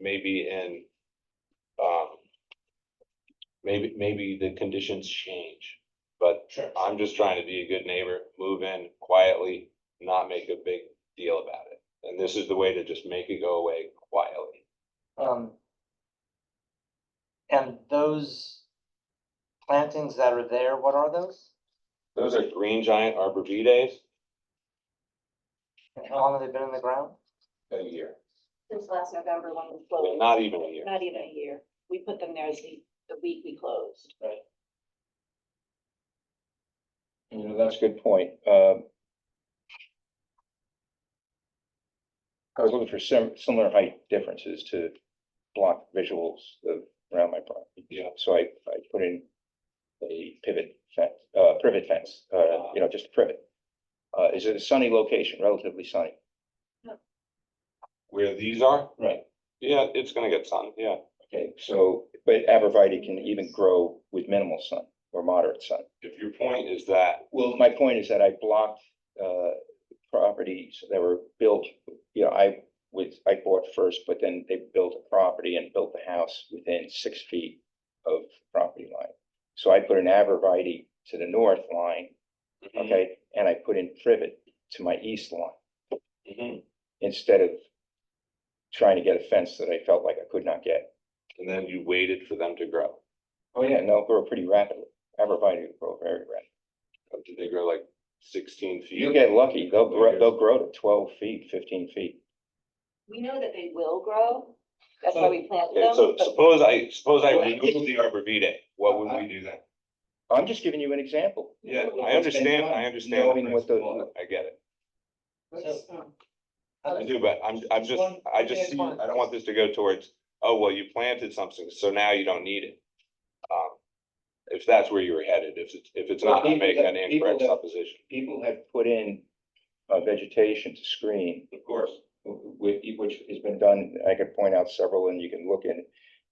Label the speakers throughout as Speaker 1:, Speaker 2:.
Speaker 1: maybe in, um, maybe, maybe the conditions change. But
Speaker 2: Sure.
Speaker 1: I'm just trying to be a good neighbor, move in quietly, not make a big deal about it. And this is the way to just make it go away quietly.
Speaker 2: Um. And those plantings that are there, what are those?
Speaker 1: Those are green giant arborvitae's
Speaker 2: And how long have they been in the ground?
Speaker 1: a year,
Speaker 3: since last November when we
Speaker 1: Well,
Speaker 3: closed.
Speaker 1: not even a year.
Speaker 3: Not even a year. We put them there as the, the week we closed.
Speaker 4: You know, that's a good point. Um, I was looking for sim- similar height differences to block visuals of around my property.
Speaker 1: Yeah.
Speaker 4: So I, I put in a pivot fence, uh, privet fence, uh, you know, just a privet. Uh, is it a sunny location, relatively sunny?
Speaker 1: Where these are,
Speaker 4: Right.
Speaker 1: yeah, it's gonna get sun, yeah.
Speaker 4: Okay, so, but abreviate can even grow with minimal sun or moderate sun.
Speaker 1: If your point is that,
Speaker 4: Well, my point is that I blocked uh properties that were built, you know, I was, I bought first, but then they built a property and built the house within six feet of property line. So I put an arborvitae to the north line,
Speaker 1: okay,
Speaker 4: okay, and I put in privet to my east line
Speaker 1: mhm.
Speaker 4: instead of trying to get a fence that I felt like I could not get.
Speaker 1: and then you waited for them to grow.
Speaker 4: Oh, yeah, no, grow pretty rapidly. Arborvitae grow very rapidly.
Speaker 1: Did they grow like sixteen feet?
Speaker 4: You get lucky, they'll grow, they'll grow to twelve feet, fifteen feet.
Speaker 3: We know that they will grow. That's why we planted
Speaker 1: Okay,
Speaker 3: them.
Speaker 1: so
Speaker 3: but-
Speaker 1: suppose I, suppose I
Speaker 4: Well, I
Speaker 1: remove the arborvitae, what would we do then?
Speaker 4: I'm just giving you an example.
Speaker 1: Yeah,
Speaker 4: What's
Speaker 1: I
Speaker 4: been
Speaker 1: understand,
Speaker 4: done,
Speaker 1: I understand. the
Speaker 4: Knowing what the,
Speaker 1: principle, I get it,
Speaker 2: So-
Speaker 5: um,
Speaker 1: I do, but I'm, I'm just, I just see, I don't want this to go towards, oh, well, you planted something, so now you don't need it. Um, If that's where you were headed, if it's, if it's not, I make an incorrect supposition.
Speaker 4: people have put in uh, vegetation to screen,
Speaker 1: Of course.
Speaker 4: wh- wh- which has been done, I could point out several and you can look at,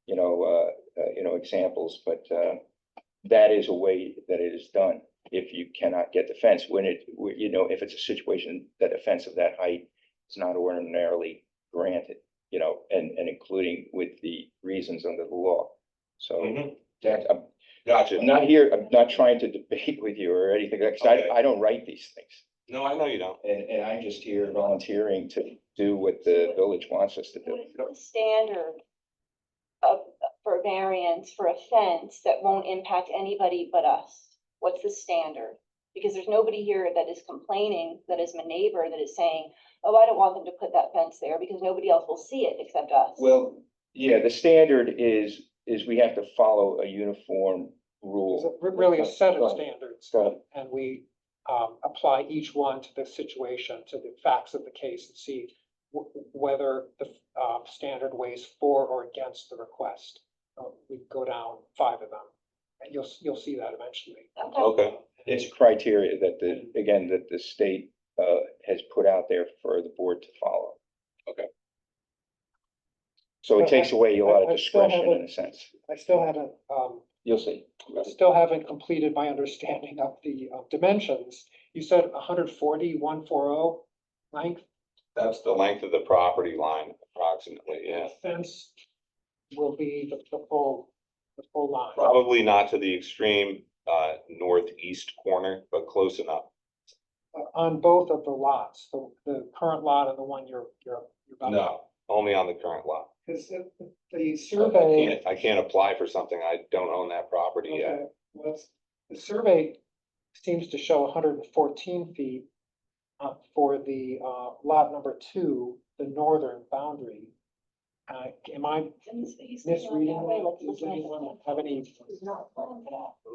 Speaker 4: you know, uh, uh, you know, examples, but, uh, that is a way that it is done, if you cannot get the fence, when it, wh- you know, if it's a situation that a fence of that height is not ordinarily granted, you know, and, and including with the reasons under the law. So
Speaker 1: Mhm.
Speaker 4: that, I'm
Speaker 1: Gotcha.
Speaker 4: I'm not here, I'm not trying to debate with you or anything, because
Speaker 1: Okay.
Speaker 4: I, I don't write these things.
Speaker 1: No, I know you don't.
Speaker 4: And, and I'm just here volunteering to do what the village wants us to do.
Speaker 3: What is the standard of, for variance for a fence that won't impact anybody but us? What's the standard? Because there's nobody here that is complaining, that is my neighbor, that is saying, oh, I don't want them to put that fence there because nobody else will see it except us.
Speaker 4: Well, yeah, the standard is, is we have to follow a uniform
Speaker 5: There's
Speaker 4: rule.
Speaker 5: a- re- really a set of
Speaker 4: Right.
Speaker 5: standards,
Speaker 4: So,
Speaker 5: and we um, apply each one to the situation, to the facts of the case, and see wh- whether the um, standard weighs for or against the request. Uh, We go down five of them, and you'll, s- you'll see that eventually.
Speaker 3: Okay.
Speaker 1: Okay,
Speaker 4: It's a criteria that the, again, that the state, uh, has put out there for the board to follow.
Speaker 1: Okay.
Speaker 4: So it takes away a lot
Speaker 5: I-
Speaker 4: of
Speaker 5: I still have
Speaker 4: discretion in
Speaker 5: a-
Speaker 4: a sense.
Speaker 5: I still haven't, um,
Speaker 4: You'll see.
Speaker 5: still haven't completed my understanding of the uh, dimensions. You said 140, 140 length?
Speaker 1: that's the length of the property line approximately, yeah.
Speaker 5: Fence will be the the full, the full line.
Speaker 1: Probably not to the extreme, uh, northeast corner, but close enough.
Speaker 5: uh, on both of the lots, the, the current lot and the one you're, you're. you're about to-
Speaker 1: No, only on the current lot.
Speaker 5: Because if the
Speaker 1: I
Speaker 5: survey,
Speaker 1: can't, I can't apply for something. I don't own that property yet.
Speaker 5: okay, what's, the survey seems to show hundred and fourteen feet uh, for the, uh, lot number two, the northern boundary. Uh, am I misreading that? Does anyone have any?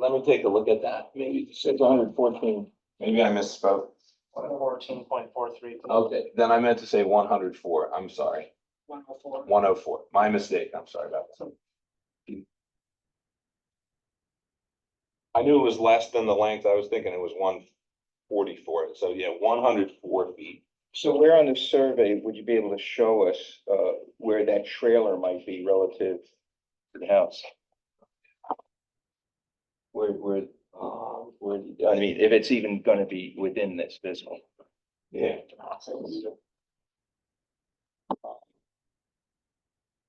Speaker 1: Let me take a look at that. Maybe
Speaker 4: It's hundred fourteen.
Speaker 1: Maybe I misspoke.
Speaker 2: Fourteen point four three.
Speaker 1: Okay, then I meant to say one hundred four. I'm sorry.
Speaker 5: One oh four.
Speaker 1: One oh four. My mistake. I'm sorry about that. I knew it was less than the length. I was thinking it was one forty-four. So yeah, one hundred four feet.
Speaker 4: So where on the survey would you be able to show us, uh, where that trailer might be relative to the house? Where, where, uh, where, I mean, if it's even gonna be within this visible.
Speaker 1: Yeah.